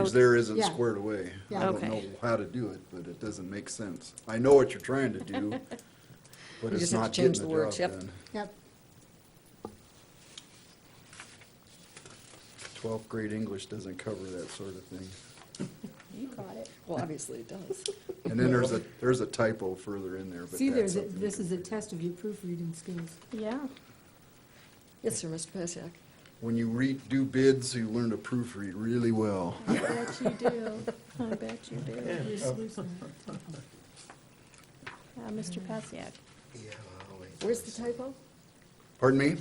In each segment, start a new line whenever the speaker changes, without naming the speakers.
Because there isn't
Yeah.
squared away. I
Yeah.
don't
Okay.
know how to do it, but it doesn't make sense. I know what you're trying to do, but
You
it's
just have to
not getting
change
the
the words,
job
yep.
done.
Yep,
Twelfth grade English doesn't cover that sort of thing.
you got it.
Well, obviously it does.
And then there's a, there's a typo further in there, but
See,
that's
there's, a-
something. we
this
can
is a
fix.
test of your proofreading skills.
Yeah.
Yes, sir, Mr. Passiak.
When you read, do bids, you learn to proofread really well.
I bet you do. I bet you do.
You're sluicing it.
Uh, Mr. Passiak.
Where's the typo?
Pardon me?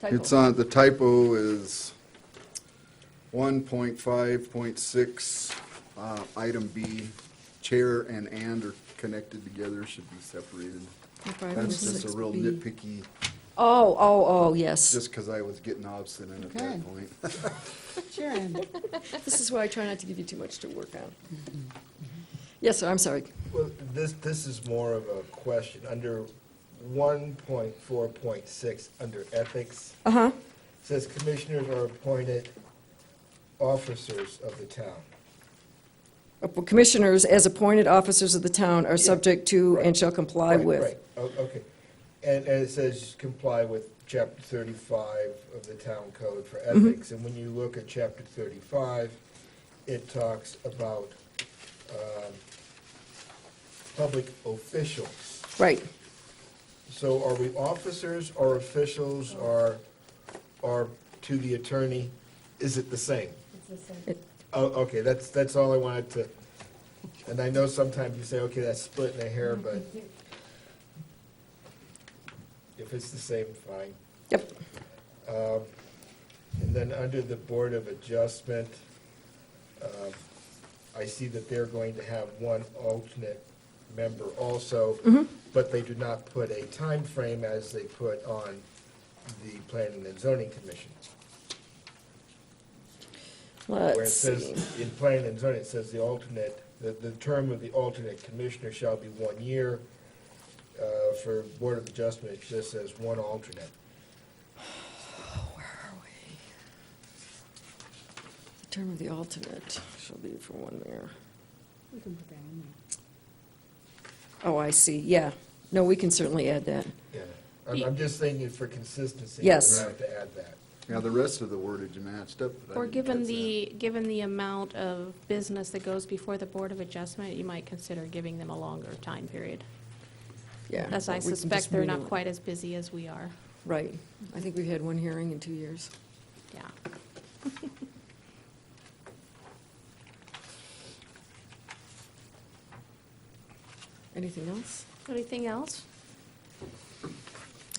Typo.
It's uh, on, the typo is one point five point six, uh, item B. Chair and and are connected together, should be separated.
Okay.
That's just a real
1.6B.
nitpicky,
Oh, oh, oh, yes.
just because I was getting obstinate at
Okay.
that point.
Sharon.
This is why I try not to give you too much to work on. Yes, sir, I'm sorry.
Well, this, this is more of a question. Under 1.4.6, under ethics,
Uh-huh.
says commissioners are appointed officers of the town.
Uh, Commissioners, as appointed officers of the town, are subject to and shall comply
Right,
with.
Right, O- okay. And, and it says comply with chapter 35 of the town code for
Mm-hmm.
ethics. And when you look at chapter 35, it talks about um, public officials.
Right.
So are we officers or officials or, or to the attorney? Is it the same? Oh, okay, that's, that's all I wanted to, and I know sometimes you say, okay, that's splitting a hair, but if it's the same, fine.
Yep.
Um, And then under the Board of Adjustment, um, I see that they're going to have one alternate member also,
Mm-hmm.
but they do not put a time frame as they put on the Planning and Zoning Commission. Where it
Let's see.
says, in Planning and Zoning, it says the alternate, the, the term of the alternate commissioner shall be one year. Uh, For Board of Adjustment, it just says one alternate.
The term of the alternate shall be for one year.
You can put that in there.
Oh, I see, yeah. No, we can certainly add that.
Yeah, I'm, I'm just thinking for consistency. we
Yes.
have To add that.
Now, the rest of the wordage matched up. but I
Or
didn't
given
catch that.
the, given the amount of business that goes before the Board of Adjustment, you might consider giving them a longer time period.
Yeah.
As I
we can just
suspect, they're
move
not
on.
quite as busy as we are.
Right. I think we've had one hearing in two years.
Yeah.
Anything else?
Anything else?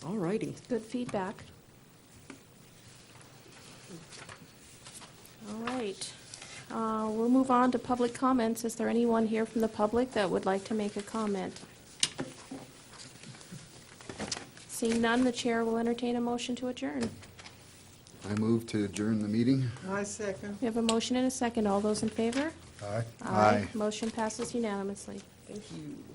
All righty.
Good feedback. All right. Uh, We'll move on to public comments. Is there anyone here from the public that would like to make a comment? Seeing none, the chair will entertain a motion to adjourn.
I move to adjourn the meeting.
I second.
We have a motion and a second. All those in favor?
Aye.
Motion passes unanimously.
Thank you.